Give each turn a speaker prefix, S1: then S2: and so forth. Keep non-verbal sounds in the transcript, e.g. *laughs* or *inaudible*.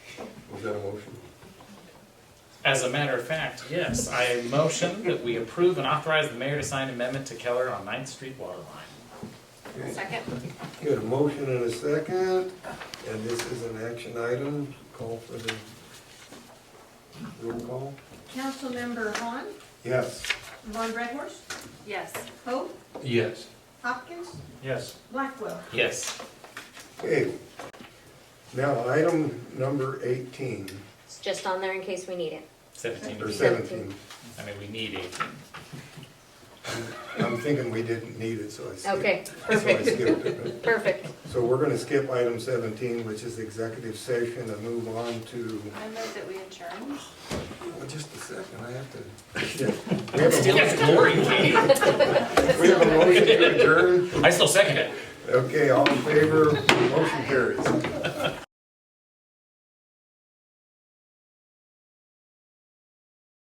S1: Is that a motion?
S2: As a matter of fact, yes, I motion that we approve and authorize the mayor to sign amendment to Keller on Ninth Street water line.
S1: Okay.
S3: Second?
S1: Got a motion and a second, and this is an action item, call for the roll call?
S4: Councilmember Vaughn,
S1: Yes.
S4: Von Redhorst,
S3: Yes.
S4: Hope,
S5: Yes.
S4: Hopkins,
S5: Yes.
S4: Blackwell.
S2: Yes.
S1: Okay. Now, item number eighteen,
S6: It's just on there in case we need it.
S2: Seventeen.
S1: or seventeen.
S2: I mean, we need eighteen.
S1: I'm thinking we didn't need it, so I skipped.
S6: Okay,
S1: so I
S6: perfect.
S1: skipped it, but-
S6: Perfect.
S1: So we're gonna skip item seventeen, which is executive session, and move on to,
S3: I move that we adjourn.
S1: well, just a second, I have to. *laughs* We have a
S2: Still
S1: motion-
S2: has glory, Katie.
S1: We have a motion to adjourn.
S2: I still second it.
S1: Okay, all in favor, motion carries.